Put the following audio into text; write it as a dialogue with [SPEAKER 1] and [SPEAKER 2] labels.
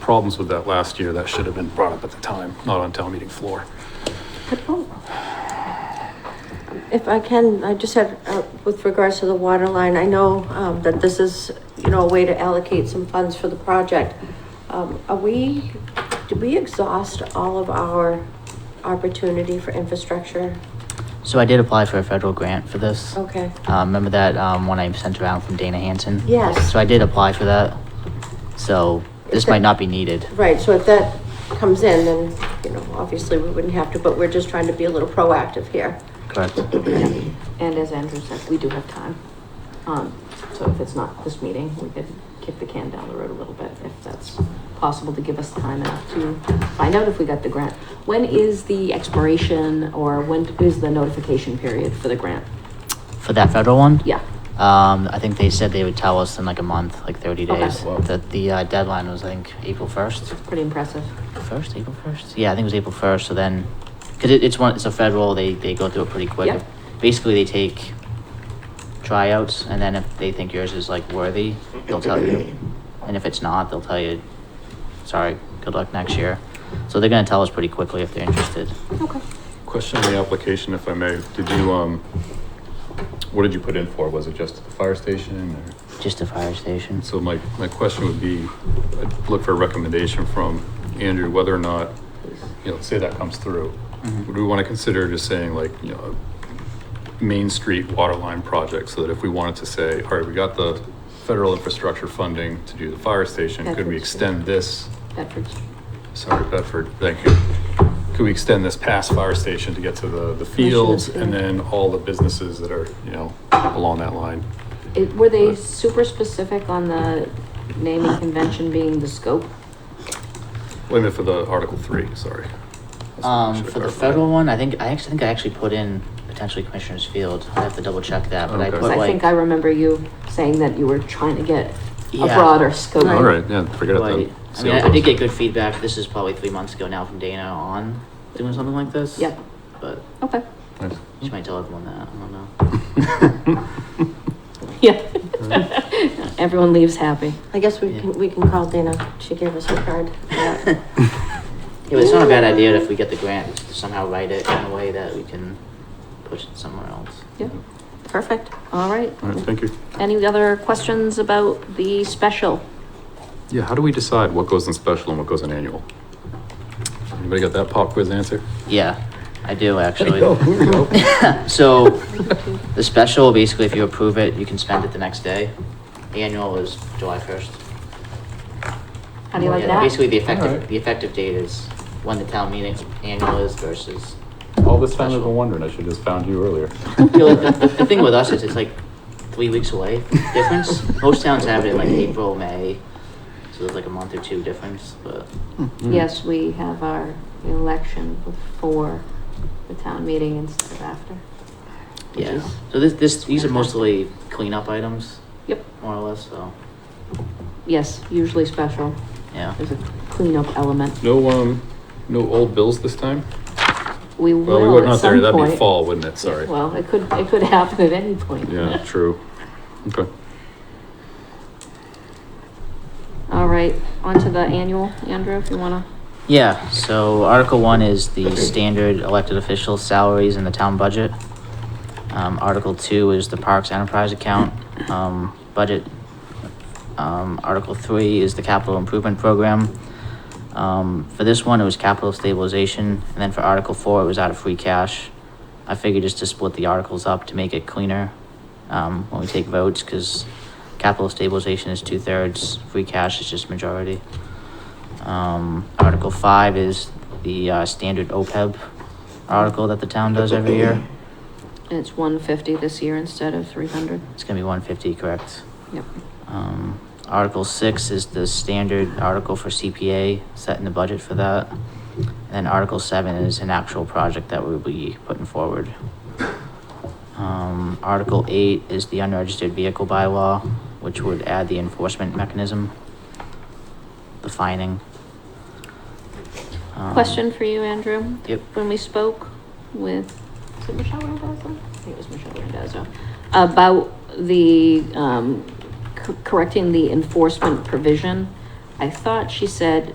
[SPEAKER 1] problems with that last year. That should have been brought up at the time, not on town meeting floor.
[SPEAKER 2] oh. If I can, I just had, uh, with regards to the water line, I know, um, that this is, you know, a way to allocate some funds for the project. Um, are we, did we exhaust all of our opportunity for infrastructure?
[SPEAKER 3] So I did apply for a federal grant for this.
[SPEAKER 2] Okay.
[SPEAKER 3] Uh, remember that um, one I sent around from Dana Hanson?
[SPEAKER 2] Yes.
[SPEAKER 3] So I did apply for that. So this
[SPEAKER 2] Is that-
[SPEAKER 3] might not be needed.
[SPEAKER 2] Right, so if that comes in, then, you know, obviously we wouldn't have to, but we're just trying to be a little proactive here.
[SPEAKER 3] Correct.
[SPEAKER 4] And as Andrew said, we do have time. Um, so if it's not this meeting, we could kick the can down the road a little bit if that's possible to give us time enough to find out if we got the grant. When is the expiration or when is the notification period for the grant?
[SPEAKER 3] For that federal one?
[SPEAKER 4] Yeah.
[SPEAKER 3] Um, I think they said they would tell us in like a month, like 30
[SPEAKER 4] Okay.
[SPEAKER 3] days.
[SPEAKER 4] Wow.
[SPEAKER 3] That the uh, deadline was, I think, April 1st.
[SPEAKER 4] It's pretty impressive.
[SPEAKER 3] First, April 1st? Yeah, I think it was April 1st. So then, because it, it's one, it's a federal, they, they go through it pretty quick.
[SPEAKER 4] Yep.
[SPEAKER 3] Basically, they take tryouts, and then if they think yours is like worthy, they'll tell you. And if it's not, they'll tell you, sorry, good luck next year. So they're going to tell us pretty quickly if they're interested.
[SPEAKER 4] Okay.
[SPEAKER 1] Question on the application, if I may. Did you, um, what did you put in for? Was it just the fire station or?
[SPEAKER 3] Just a fire station.
[SPEAKER 1] So my, my question would be, I'd look for a recommendation from Andrew, whether or not, you know, say that comes through.
[SPEAKER 3] Mhm.
[SPEAKER 1] Would we want to consider just saying like, you know, Main Street water line project, so that if we wanted to say, all right, we got the federal infrastructure funding to do the fire station, could we
[SPEAKER 4] Bedford Street.
[SPEAKER 1] extend this?
[SPEAKER 4] Bedford.
[SPEAKER 1] Sorry, Bedford, thank you. Could we extend this past fire station to get to the, the fields and then all the businesses that are, you know, along that line?
[SPEAKER 4] It, were they super specific on the naming convention being the scope?
[SPEAKER 1] Wait a minute for the Article Three, sorry.
[SPEAKER 3] Um,
[SPEAKER 1] Should have
[SPEAKER 3] for the
[SPEAKER 1] clarified.
[SPEAKER 3] federal one, I think, I actually think I actually put in potentially Commissioner's Field. I have to double check that, but I
[SPEAKER 1] Okay.
[SPEAKER 3] put
[SPEAKER 4] 'Cause I think I
[SPEAKER 3] like,
[SPEAKER 4] remember you saying that you were trying to get a
[SPEAKER 3] Yeah.
[SPEAKER 4] broader scope.
[SPEAKER 1] All right, yeah, forget it
[SPEAKER 3] Right.
[SPEAKER 1] then.
[SPEAKER 3] I
[SPEAKER 1] See
[SPEAKER 3] mean,
[SPEAKER 1] how
[SPEAKER 3] I
[SPEAKER 1] it
[SPEAKER 3] I did
[SPEAKER 1] goes.
[SPEAKER 3] get good feedback. This is probably three months ago now from Dana on doing something like this.
[SPEAKER 4] Yep.
[SPEAKER 3] But
[SPEAKER 4] Okay.
[SPEAKER 1] Nice.
[SPEAKER 3] she might tell everyone that. I don't know.
[SPEAKER 4] Yeah. Everyone leaves happy.
[SPEAKER 2] I guess we
[SPEAKER 3] Yeah.
[SPEAKER 2] can, we can call Dana, she gave us her card. Yeah.
[SPEAKER 3] Yeah, but it's not a bad idea if we get the grant to somehow write it in a way that we can push it somewhere else.
[SPEAKER 4] Yeah. Perfect. All right.
[SPEAKER 1] All right, thank you.
[SPEAKER 4] Any other questions about the special?
[SPEAKER 1] Yeah, how do we decide what goes in special and what goes in annual? Anybody got that pop quiz answer?
[SPEAKER 3] Yeah, I do actually.
[SPEAKER 1] we go.
[SPEAKER 3] So the special, basically, if you approve it, you can spend it the next day. Annual is July first.
[SPEAKER 4] How do you like
[SPEAKER 3] Yeah,
[SPEAKER 4] that?
[SPEAKER 3] Basically, the
[SPEAKER 1] Alright.
[SPEAKER 3] effective, the effective date is when the town meeting annual is versus
[SPEAKER 1] All this time I've been wondering, I should have just found you earlier.
[SPEAKER 3] feel like the, the thing with us is it's like three weeks away difference. Most towns have it in like April, May, so there's like a month or two difference. But
[SPEAKER 1] Hmm. Mm-hmm.
[SPEAKER 4] Yes, we have our election before the town meeting instead of after. which
[SPEAKER 3] yeah,
[SPEAKER 4] is-
[SPEAKER 3] so this this these are mostly cleanup items,
[SPEAKER 4] Yep,
[SPEAKER 3] more or less. So
[SPEAKER 4] yes, usually special.
[SPEAKER 3] yeah,
[SPEAKER 4] There's a cleanup element.
[SPEAKER 1] No, um, no old bills this time?
[SPEAKER 4] We
[SPEAKER 1] Well, we
[SPEAKER 4] will
[SPEAKER 1] were
[SPEAKER 4] at
[SPEAKER 1] not there,
[SPEAKER 4] some
[SPEAKER 1] that'd be
[SPEAKER 4] point.
[SPEAKER 1] fall, wouldn't it? Sorry.
[SPEAKER 4] Well, it could, it could happen at any point.
[SPEAKER 1] Yeah, true. Okay.
[SPEAKER 4] All right, on to the annual, Andrew, if you wanna.
[SPEAKER 3] yeah. So Article One is the standard elected official salaries in the town budget. Um, Article Two is the Parks Enterprise Account um, budget. Um, Article Three is the Capital Improvement Program. Um, for this one, it was capital stabilization, and then for Article Four, it was out of free cash. I figured just to split the articles up to make it cleaner, um, when we take votes, cause capital stabilization is two-thirds, free cash is just majority. Um, Article Five is the, uh, standard OPEB article that the town does every year.
[SPEAKER 4] And it's one fifty this year instead of three hundred.
[SPEAKER 3] It's gonna be one fifty, correct?
[SPEAKER 4] Yep.
[SPEAKER 3] Um, Article six is the standard article for CPA, setting the budget for that. And then Article seven is an actual project that we'll be putting forward. Um, Article eight is the unregistered vehicle bylaw, which would add the enforcement mechanism, the fining. Um,
[SPEAKER 4] Question for you, Andrew.
[SPEAKER 3] Yep.
[SPEAKER 4] When we spoke with, was it Michelle Randazzo? I think it was Michelle Randazzo, about the, um, c- correcting the enforcement provision. I thought she said